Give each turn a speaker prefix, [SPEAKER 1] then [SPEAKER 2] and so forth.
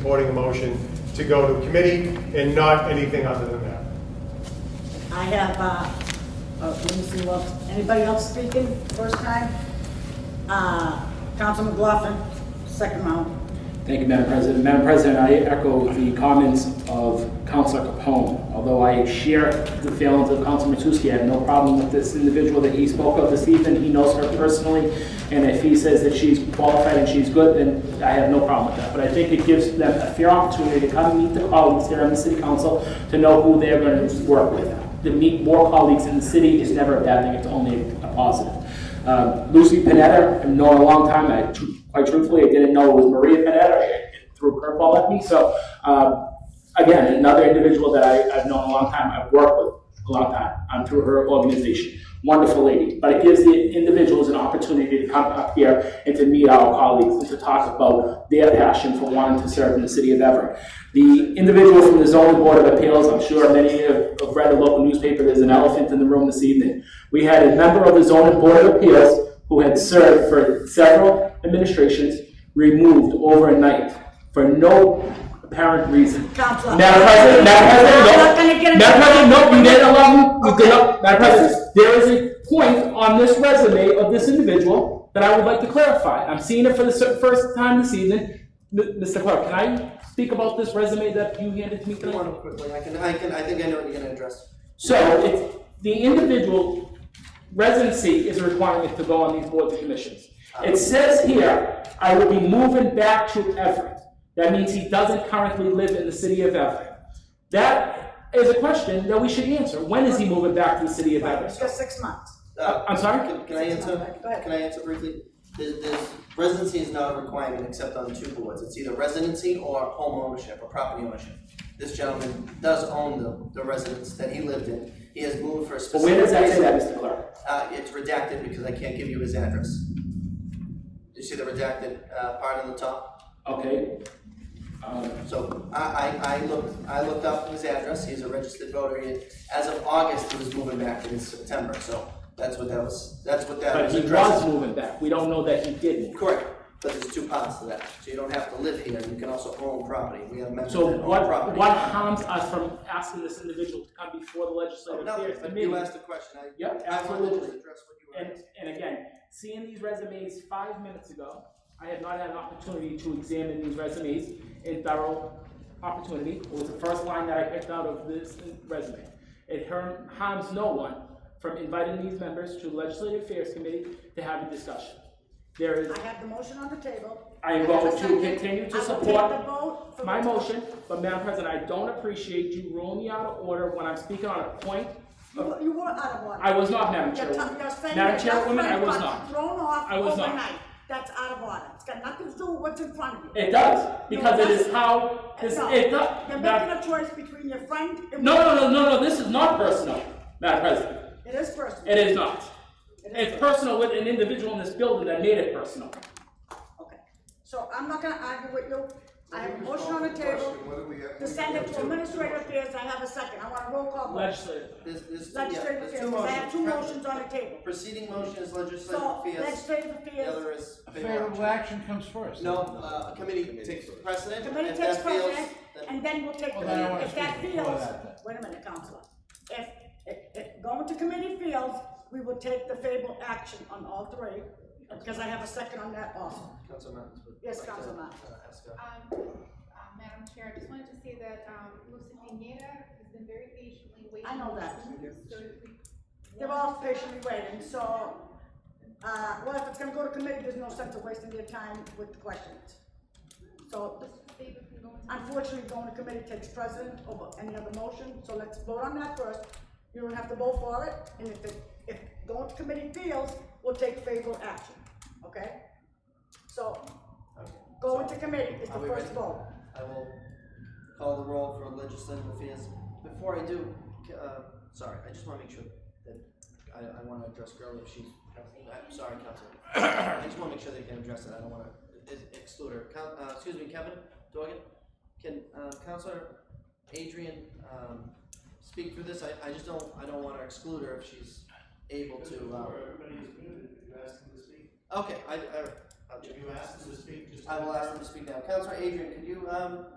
[SPEAKER 1] supporting a motion to go to committee and not anything other than that.
[SPEAKER 2] I have, uh, oh, let me see, well, anybody else speaking first time? Uh, Council McLaughlin, second round.
[SPEAKER 3] Thank you, Madam President. Madam President, I echo the comments of Councilor Capone. Although I share the feelings of Councilman Matusky, I have no problem with this individual that he spoke of this evening. He knows her personally, and if he says that she's qualified and she's good, then I have no problem with that. But I think it gives them a fair opportunity to come meet the colleagues here on the city council to know who they're going to work with. To meet more colleagues in the city is never a bad thing, it's only a positive. Um, Lucy Panetta, I've known her a long time. I, tr- quite truthfully, I didn't know it was Maria Panetta. It threw a curveball at me. So, um, again, another individual that I, I've known a long time, I've worked with a long time um, through her organization. Wonderful lady. But it gives the individuals an opportunity to come up here and to meet our colleagues and to talk about their passion for wanting to serve in the city of Everett. The individual from the zoning board of appeals, I'm sure many have have read the local newspaper, there's an elephant in the room this evening. We had a member of the zoning board of appeals who had served for several administrations removed overnight for no apparent reason.
[SPEAKER 2] Counselor.
[SPEAKER 3] Madam President, Madam President,
[SPEAKER 2] I'm not gonna get
[SPEAKER 3] no.
[SPEAKER 2] into
[SPEAKER 3] Madam
[SPEAKER 2] that.
[SPEAKER 3] President, no, you didn't allow me, you did not, Madam President, there is a point on this resume of this individual that I would like to clarify. I'm seeing it for the cer- first time this evening. M- Mr. Clerk, can I speak about this resume that you handed to me
[SPEAKER 4] Come
[SPEAKER 3] tonight?
[SPEAKER 4] on quickly, I can, I can, I think I know what you're gonna address.
[SPEAKER 3] So it's, the individual residency is a requirement to go on these boards and commissions. It says here, I will be moving back to Everett. That means he doesn't currently live in the city of Everett. That is a question that we should answer. When is he moving back to the city of
[SPEAKER 2] It's
[SPEAKER 3] Everett?
[SPEAKER 2] just six months.
[SPEAKER 4] Uh,
[SPEAKER 3] I'm sorry?
[SPEAKER 4] Can, can I answer,
[SPEAKER 2] Go ahead.
[SPEAKER 4] can I answer briefly? This, this residency is not a requirement except on two boards, it's either residency or home ownership or property ownership. This gentleman does own the, the residence that he lived in, he has moved for a
[SPEAKER 3] But
[SPEAKER 4] specific
[SPEAKER 3] where
[SPEAKER 4] reason.
[SPEAKER 3] does that say that, Mr. Clerk?
[SPEAKER 4] Uh, it's redacted because I can't give you his address. Do you see the redacted, uh, part on the top?
[SPEAKER 3] Okay. Um,
[SPEAKER 4] So I, I, I looked, I looked up his address, he's a registered voter, and as of August, he was moving back in September, so that's what that was, that's what that
[SPEAKER 3] But
[SPEAKER 4] was
[SPEAKER 3] he was
[SPEAKER 4] addressed.
[SPEAKER 3] moving back. We don't know that he did move.
[SPEAKER 4] Correct, but there's two parts to that, so you don't have to live here, you can also own property, we have members that
[SPEAKER 3] So
[SPEAKER 4] own
[SPEAKER 3] what,
[SPEAKER 4] property.
[SPEAKER 3] what harms us from asking this individual to come before the legislative
[SPEAKER 4] No,
[SPEAKER 3] affairs
[SPEAKER 4] but
[SPEAKER 3] committee?
[SPEAKER 4] you asked a question, I.
[SPEAKER 3] Yep,
[SPEAKER 4] I wanted to
[SPEAKER 3] absolutely.
[SPEAKER 4] Address what you were
[SPEAKER 3] And,
[SPEAKER 4] asking.
[SPEAKER 3] and again, seeing these resumes five minutes ago, I have not had an opportunity to examine these resumes in thorough opportunity. It was the first line that I picked out of this resume. It harm- harms no one from inviting these members to the Legislative Affairs Committee to have a discussion. There is,
[SPEAKER 2] I have the motion on the table.
[SPEAKER 3] I am
[SPEAKER 2] have a
[SPEAKER 3] going to
[SPEAKER 2] second.
[SPEAKER 3] continue to
[SPEAKER 2] I will
[SPEAKER 3] support
[SPEAKER 2] take the vote. for-
[SPEAKER 3] my motion, but Madam President, I don't appreciate you ruling me out of order when I'm speaking on a point.
[SPEAKER 2] You were- You were out of order.
[SPEAKER 3] I was not, Madam
[SPEAKER 2] Your
[SPEAKER 3] Chairwoman.
[SPEAKER 2] tongue- your saying
[SPEAKER 3] Madam
[SPEAKER 2] that your
[SPEAKER 3] Chairwoman, I
[SPEAKER 2] friend
[SPEAKER 3] was
[SPEAKER 2] got
[SPEAKER 3] not.
[SPEAKER 2] Thrown off
[SPEAKER 3] I was not.
[SPEAKER 2] overnight. That's out of order. It's got nothing to do with what's in front of you.
[SPEAKER 3] It does, because it is how, this,
[SPEAKER 2] No,
[SPEAKER 3] it does.
[SPEAKER 2] You're
[SPEAKER 3] Madam-
[SPEAKER 2] making a choice between your friend and.
[SPEAKER 3] No, no, no, no, no, this is not personal, Madam President.
[SPEAKER 2] It is personal.
[SPEAKER 3] It is not.
[SPEAKER 2] It is
[SPEAKER 3] It's personal with an individual in this building that made it personal.
[SPEAKER 2] Okay, so I'm not gonna argue with you. I have a motion on the table to send it to administrative affairs. I have a second. I want a roll call vote.
[SPEAKER 3] Legislative.
[SPEAKER 4] There's, there's, yeah,
[SPEAKER 2] Legislative
[SPEAKER 4] there's
[SPEAKER 2] affairs,
[SPEAKER 4] two
[SPEAKER 2] 'cause I have two
[SPEAKER 4] motions.
[SPEAKER 2] motions on the table.
[SPEAKER 4] Proceeding motion is legislative
[SPEAKER 2] So
[SPEAKER 4] affairs,
[SPEAKER 2] legislative
[SPEAKER 4] the
[SPEAKER 2] affairs,
[SPEAKER 4] other is.
[SPEAKER 5] A favorable action comes first.
[SPEAKER 4] No, uh, a committee takes precedent, and
[SPEAKER 2] committee
[SPEAKER 4] if
[SPEAKER 2] takes
[SPEAKER 4] that fails,
[SPEAKER 2] precedent,
[SPEAKER 4] then,
[SPEAKER 2] and then we'll take,
[SPEAKER 5] Well, then I wanna
[SPEAKER 2] if that
[SPEAKER 5] speak before
[SPEAKER 2] fails,
[SPEAKER 5] that then.
[SPEAKER 2] wait a minute, Counselor. If, if, if going to committee fails, we will take the favorable action on all three, because I have a second on that also.
[SPEAKER 4] Councilman. Martins would
[SPEAKER 2] Yes,
[SPEAKER 4] like to,
[SPEAKER 2] Councilman Martins.
[SPEAKER 4] uh, ask a-
[SPEAKER 6] Um, uh, Madam Chair, I just wanted to say that um, Lucy Pineda has been very patiently waiting.
[SPEAKER 2] I know that.
[SPEAKER 6] So if we-
[SPEAKER 2] They're all patiently waiting, so, uh, well, if it's gonna go to committee, there's no sense of wasting your time with the questions. So
[SPEAKER 6] Mr. Davis can go into-
[SPEAKER 2] unfortunately, going to committee takes precedent over any other motion, so let's vote on that first. You don't have to vote for it, and if it, if going to committee fails, we'll take favorable action, okay? So,
[SPEAKER 4] Okay.
[SPEAKER 2] going to committee is the
[SPEAKER 4] Are we
[SPEAKER 2] first
[SPEAKER 4] ready?
[SPEAKER 2] vote.
[SPEAKER 4] I will call the roll for legislative affairs. Before I do, c- uh, sorry, I just wanna make sure that, I, I wanna address Gurley if she's, I'm sorry, Councilman. I just wanna make sure that you can address it, I don't wanna ex- exclude her. Coun- uh, excuse me, Kevin, Dorgan, can, uh, Counselor Adrian, um, speak through this? I, I just don't, I don't wanna exclude her if she's able to, uh. Okay, I, I, I'll
[SPEAKER 7] If
[SPEAKER 4] check.
[SPEAKER 7] you ask them to speak, just.
[SPEAKER 4] I will ask them to speak now. Counselor Adrian, could you, um,